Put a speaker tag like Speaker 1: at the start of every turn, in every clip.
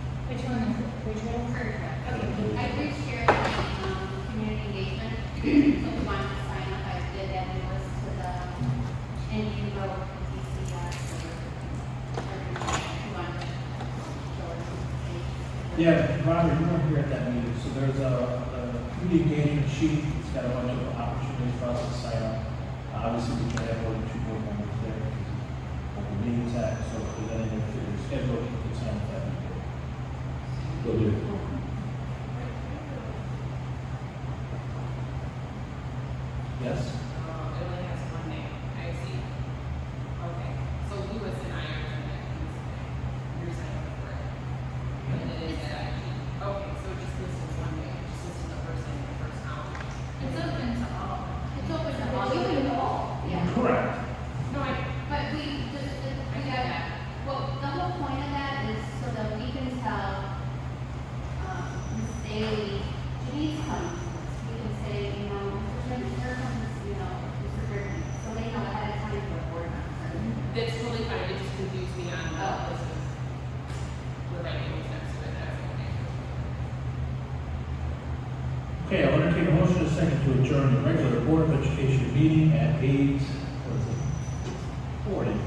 Speaker 1: um, So we wanted to sign up, I did add the list to the Indian Road DCR. You want to show us the-
Speaker 2: Yeah, Robert, you weren't here at that meeting, so there's a, a community engagement sheet, it's got a bunch of opportunities for us to sign up. Obviously, we can have more than two board members there, on the meetings act, so if there's anything that's your schedule, you can sign up that.
Speaker 3: Will do.
Speaker 2: Yes?
Speaker 4: Um, it only has one name, I see. Okay, so Lewis and I are doing that, you're signing up for it. And it is that I, okay, so it just listed one name, it just listed the first name, the first column.
Speaker 1: It's open to all. It's open to all.
Speaker 5: It's open to all.
Speaker 1: Yeah.
Speaker 2: Correct.
Speaker 4: No, I,
Speaker 1: But we, the, the, we got, well, the whole point of that is so that we can tell, um, Ms. Daly, Janice comes, we can say, you know, Mr. Griffin, here comes, you know, Mr. Griffin, so they know ahead of time for a board member.
Speaker 4: that's totally fine, it just confused me on the, this is, the right name was next to it, that's okay.
Speaker 2: Okay, I'll entertain a motion in a second to adjourn the regular Board of Education meeting at eight, what is it? Forty.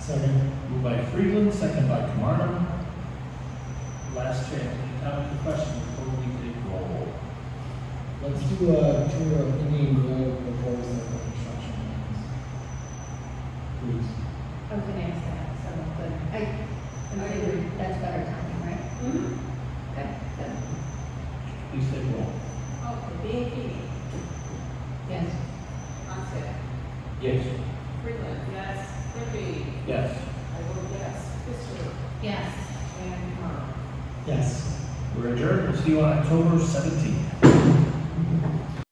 Speaker 2: Second. Moved by Freeland, second by Camardo. Last chance, any comments or questions before we take roll? call?
Speaker 6: Let's do a tour of Indian Grove before we start the construction. plans.
Speaker 5: I was gonna ask that, so, but I, I agree, that's better timing, right? Okay, good,
Speaker 2: Please take roll.
Speaker 4: Okay, being Katie,
Speaker 5: yes.
Speaker 4: Onset,
Speaker 2: Yes.
Speaker 4: Freeland, yes, Libby,
Speaker 2: Yes.
Speaker 4: I vote yes, Fisher,
Speaker 5: Yes.
Speaker 4: and um, Marl.
Speaker 6: Yes.
Speaker 2: We're adjourned, we'll see you on October seventeenth.